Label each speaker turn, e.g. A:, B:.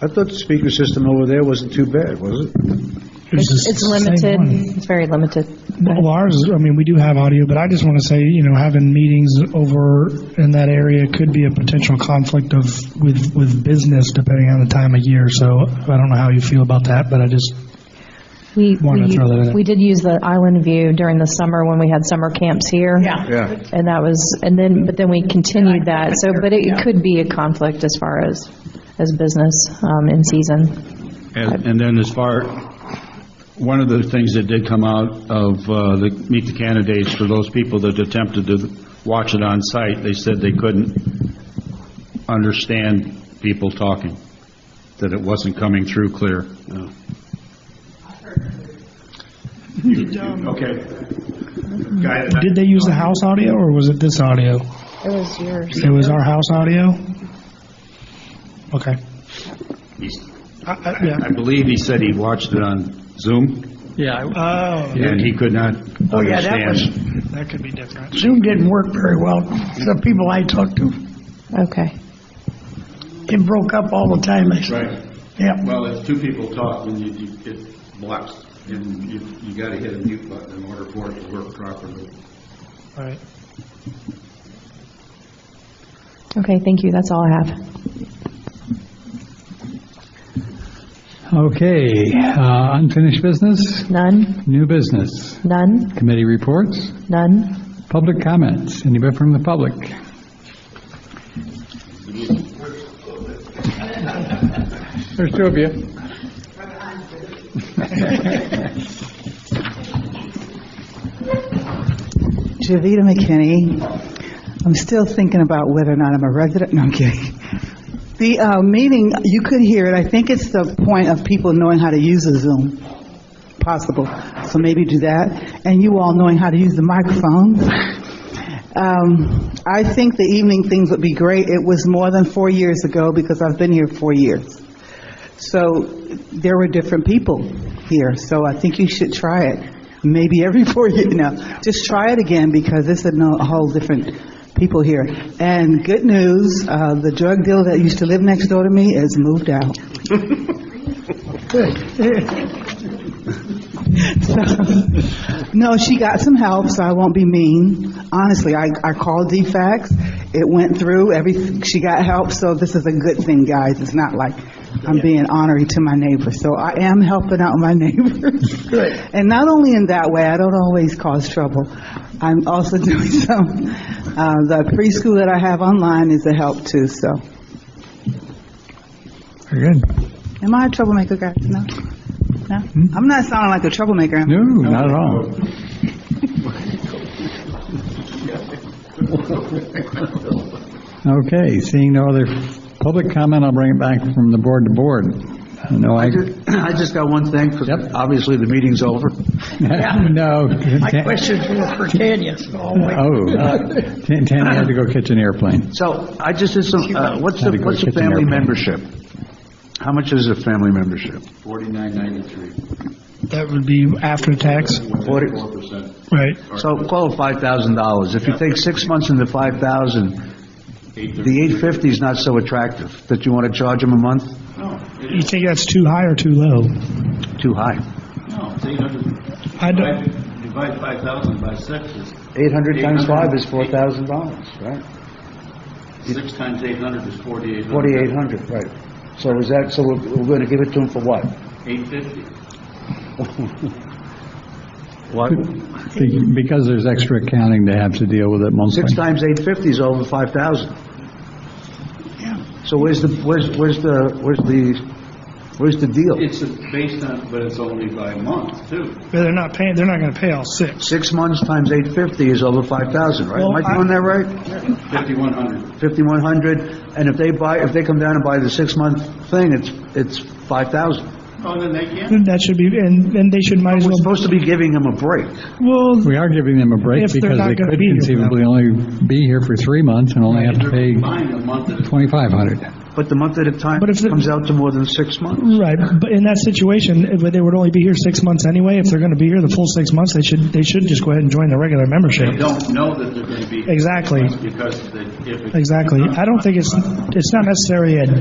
A: I thought the speaker system over there wasn't too bad, was it?
B: It's it's limited, it's very limited.
C: Well, ours, I mean, we do have audio, but I just want to say, you know, having meetings over in that area could be a potential conflict of, with, with business depending on the time of year. So I don't know how you feel about that, but I just,
B: We,
C: Wanted to throw that in
B: we
C: there.
B: we did use the island view during the summer when we had summer camps here. Yeah.
A: Yeah.
B: And that was, and then, but then we continued that, so, but it could be a conflict as far as, as business um, in season.
D: And and then as far, one of the things that did come out of uh, the Meet the Candidates, for those people that attempted to watch it on site, they said they couldn't understand people talking, that it wasn't coming through clear. Okay.
C: did they use the house audio or was it this audio?
B: It was yours.
C: It was our house audio? Okay. I- I- Yeah.
D: I believe he said he watched it on Zoom,
E: Yeah,
C: Oh,
D: and he could not understand.
F: Oh, yeah, that was-
C: that could be different.
F: Zoom didn't work very well. The people I talked to,
B: Okay.
F: it broke up all the time. I said,
D: Right.
F: yeah,
D: Well, if two people talk, then you, you get blocks, and you, you gotta hit a mute button in order for it to work properly.
C: All right.
B: Okay, thank you, that's all I have.
E: okay. uh, Unfinished business,
B: None,
E: new business,
B: none,
E: committee reports,
B: none.
E: public comments, anybody from the public? There's two of you.
G: Javita McKinney. I'm still thinking about whether or not I'm a resident, no, I'm kidding. The uh, meeting, you could hear it, I think it's the point of people knowing how to use a Zoom, possible, so maybe do that, and you all knowing how to use the microphones. Um, I think the evening things would be great, it was more than four years ago, because I've been here four years. So there were different people here, so I think you should try it. Maybe every four years, no, just try it again because it's a no- a whole different people here. And good news, uh, the drug dealer that used to live next door to me has moved out. So, No, she got some help, so I won't be mean. Honestly, I, I called DFAX, it went through, every, she got help, so this is a good thing, guys. It's not like I'm being honorary to my neighbors, so I am helping out my neighbors. And not only in that way, I don't always cause trouble. I'm also doing some, uh, the preschool that I have online is a help too, so.
C: Very good.
G: Am I a troublemaker, guys? No? No? I'm not sounding like a troublemaker, am I?
E: No, not at all. Okay, seeing no other public comment, I'll bring it back from the board to board. I know I,
A: I just got one thing, because
E: Yep.
A: obviously the meeting's over.
E: no.
F: my
E: Tan-
F: questions were for Tanya, so I'll wait.
E: Oh, Tan- Tanya had to go catch an airplane.
A: So I just did some, uh, what's
E: Had
A: the,
E: to go
A: what's the
E: get the
A: family
E: airplane.
A: membership? How much is a family membership?
D: Forty-nine ninety-three.
C: That would be after tax,
A: Forty-
D: Four percent.
C: right?
A: So call it $5,000. If you take six months into 5,000, the 850 is not so attractive, that you want to charge them a month?
C: You think that's too high or too low?
A: Too high.
D: No, it's eight hundred.
C: I don't,
D: Divide five thousand by six is,
A: 800 times 5 is $4,000, right?
D: six times eight hundred is forty-eight hundred.
A: 4,800, right. So is that, so we're, we're going to give it to them for what?
D: Eight fifty.
A: What?
E: Be- Because there's extra accounting to have to deal with it monthly.
A: Six times 850 is over 5,000. So where's the, where's, where's the, where's the, where's the deal?
D: It's based on, but it's only by month, too.
C: but they're not paying, they're not going to pay all six.
A: Six months times 850 is over 5,000, right? Am I doing that right?
D: Fifty-one hundred.
A: 5,100, and if they buy, if they come down and buy the six-month thing, it's, it's 5,000.
D: Oh, then they can't.
C: That should be, and, and they should might as
A: We're
C: well,
A: supposed to be giving them a break.
C: well,
E: We are giving them a break
C: If they're
E: because
C: not
E: they
C: gonna
E: could
C: be here for that
E: conceivably only be here for three months and only have to pay
D: Combined a month at a
E: 2,500.
A: But the month at a time
C: But if the-
A: comes out to more than six months.
C: right, but in that situation, if they would only be here six months anyway. If they're going to be here the full six months, they should, they should just go ahead and join the regular membership.
D: They don't know that they're going to be.
C: Exactly.
D: Because they- if it
C: Exactly. I don't think it's, it's not necessarily a